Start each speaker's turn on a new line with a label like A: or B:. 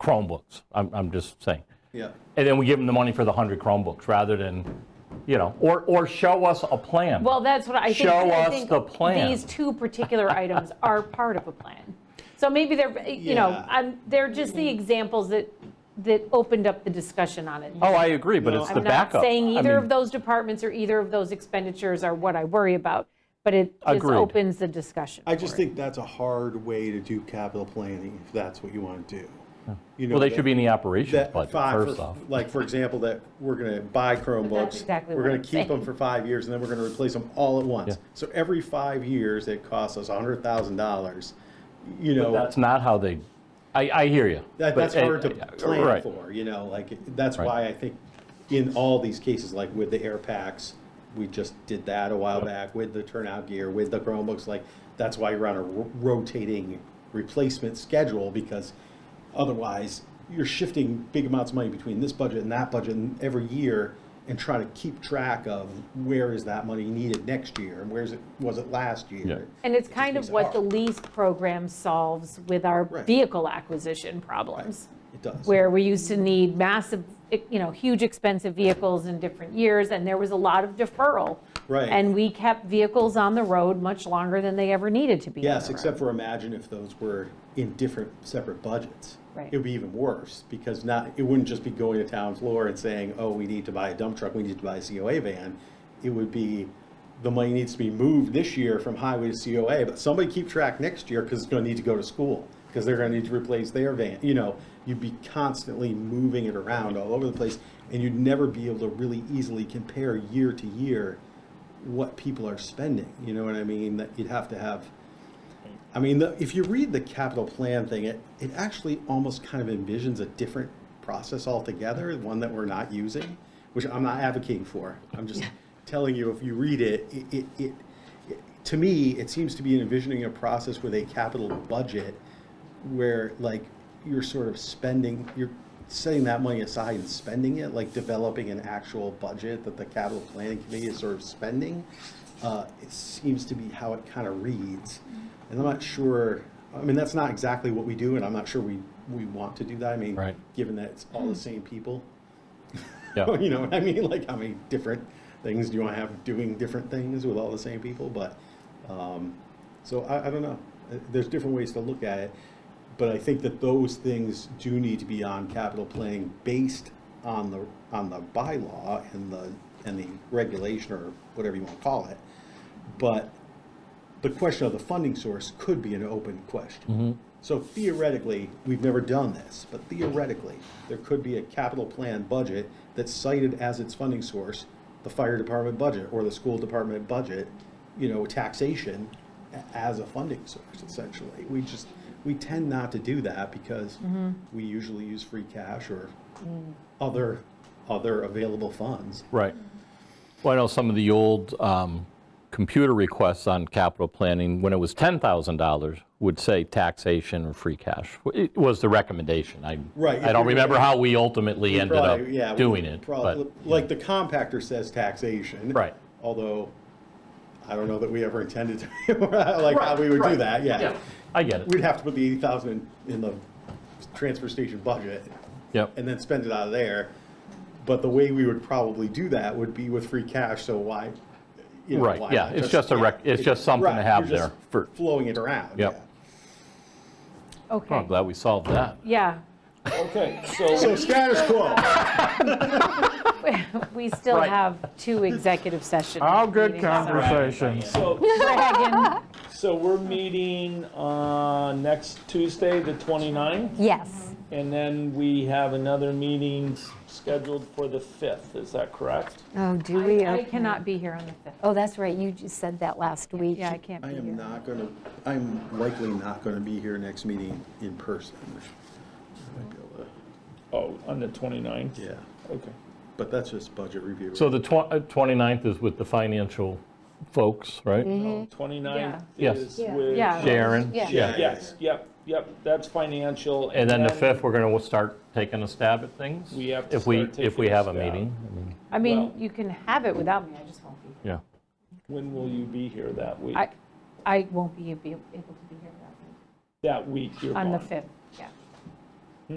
A: Chromebooks. I'm, I'm just saying.
B: Yeah,
A: And then we give them the money for the 100 Chromebooks rather than, you know, or, or show us a plan.
C: Well, that's what I think.
A: Show
C: I
A: us
C: think
A: the plan.
C: These two particular items are part of a plan. So maybe they're, eh, you know,
B: Yeah.
C: I'm- they're just the examples that, that opened up the discussion on it.
A: Oh, I agree, but it's the
C: I'm
A: backup.
C: not saying
A: I
C: either
A: mean,
C: of those departments or either of those expenditures are what I worry about, but it just
A: Agreed.
C: opens the discussion.
B: I just
C: for it.
B: think that's a hard way to do capital planning if that's what you want to do. You know,
A: Well, they
B: that-
A: should be in the operations
B: that
A: budget,
B: five,
A: first
B: for-
A: off.
B: like, for example, that we're going to buy Chromebooks.
C: exactly
B: We're
C: what
B: going
C: I'm
B: to keep them
C: saying.
B: for five years, and then we're going to replace them all at once.
A: Yeah.
B: So every five years, it costs us $100,000, you know.
A: That's not how they, I, I hear you.
B: That,
A: but
B: that's
A: it-
B: hard to plan
A: right.
B: for, you know, like, that's
A: Right.
B: why I think in all these cases, like with the air packs, we just did that a while back with the turnout gear, with the Chromebooks, like, that's why you're on a ro- rotating replacement schedule, because otherwise, you're shifting big amounts of money between this budget and that budget and every year, and trying to keep track of where is that money needed next year, and where's it, was it last
A: Yeah.
B: year?
C: And it's kind
B: makes
C: of
B: it
C: what the
B: hard.
C: lease program solves with our
B: Right.
C: vehicle acquisition problems.
B: It does.
C: where we used to need massive, you know, huge expensive vehicles in different years, and there was a lot of deferral.
B: Right.
C: And we kept vehicles on the road much longer than they ever needed to be. on
B: Yes,
C: the
B: except
C: road.
B: for imagine if those were in different, separate budgets.
C: Right.
B: It would be even worse, because not, it wouldn't just be going to town floor and saying, oh, we need to buy a dump truck, we need to buy a COA van. It would be, the money needs to be moved this year from highway to COA, but somebody keep track next year, because it's gonna need to go to school, because they're gonna need to replace their van, you know, you'd be constantly moving it around all over the place, and you'd never be able to really easily compare year to year what people are spending, you know what I mean? That you'd have to have I mean, the, if you read the capital plan thing, it, it actually almost kind of envisions a different process altogether, one that we're not using, which I'm not advocating for. I'm just telling you, if you read it, it, it, it, it- to me, it seems to be envisioning a process with a capital budget where like you're sort of spending, you're setting that money aside and spending it, like developing an actual budget that the capital planning committee is sort of spending. Uh, it seems to be how it kind of reads. And I'm not sure, I mean, that's not exactly what we do, and I'm not sure we, we want to do that. I mean,
A: Right.
B: given that it's all the same people,
A: Yeah.
B: you know what I mean? Like, how many different things do you want to have doing different things with all the same people? But, um, so I, I don't know. Uh, There's different ways to look at it. But I think that those things do need to be on capital planning based on the, on the bylaw and the, and the regulation or whatever you want to call it. But the question of the funding source could be an open question. So theoretically, we've never done this, but theoretically, there could be a capital plan budget that's cited as its funding source, the fire department budget or the school department budget, you know, taxation a- as a funding source essentially. We just, we tend not to do that because we usually use free cash or other, other available funds.
A: Right. Well, I know some of the old um, computer requests on capital planning, when it was $10,000, would say taxation or free cash. It was the recommendation. I,
B: Right, if
A: I don't
B: you're-
A: remember how we ultimately ended up
B: Probably, yeah, we
A: doing it,
B: probably-
A: but,
B: Like the compactor says taxation.
A: Right.
B: Although, I don't know that we ever intended to, like, how we would do
A: Right,
B: that,
A: yeah,
B: yeah.
A: I get
B: We'd
A: it.
B: have to put the eighty thousand in the transfer station budget
A: Yep.
B: and then spend it out of there. But the way we would probably do that would be with free cash, so why? you know,
A: Right,
B: why
A: yeah,
B: not
A: it's just a rec-
B: yeah,
A: it's just something to
B: right,
A: have
B: you're
A: there
B: just
A: for-
B: Flowing it around, yeah.
A: Yep. Oh, I'm
C: Okay,
A: glad we solved that.
C: yeah,
D: Okay,
B: So
D: so,
B: status quo.
C: we still
A: Right.
C: have two executive sessions.
E: All good conversations.
D: so,
C: Dragon,
D: so we're meeting uh next Tuesday, the 29th,
F: Yes,
D: and then we have another meeting scheduled for the 5th, is that correct?
F: oh, do we?
C: I
F: Okay.
C: cannot be here on the 5th.
F: Oh, that's right, you just said that last week.
C: Yeah, I can't
B: I
C: be
B: am
C: here.
B: not gonna, I'm likely not gonna be here next meeting in person. I might be able to-
D: Oh, on the 29th?
B: Yeah,
D: Okay.
B: but that's just budget review.
A: So the tw- uh, 29th is with the financial folks, right?
D: No, 29th
A: Yeah.
D: Um, is
F: Yeah.
D: with.
C: Mm-hmm. Yeah.
A: Sharon?
F: Yeah.
D: Yes, yep, yep, that's financial.
A: And then the 5th, we're going to start taking a stab at things?
D: We have to
A: if we-
D: start
A: If we
D: taking a
A: have a
D: stab.
A: meeting, I mean,
C: I mean,
D: Well-
C: you can have it without me, I just won't be here.
A: yeah.
D: When will you be here that week?
C: I, I won't be be able to be here without you
D: That week you're
C: on the
D: gone.
C: 5th.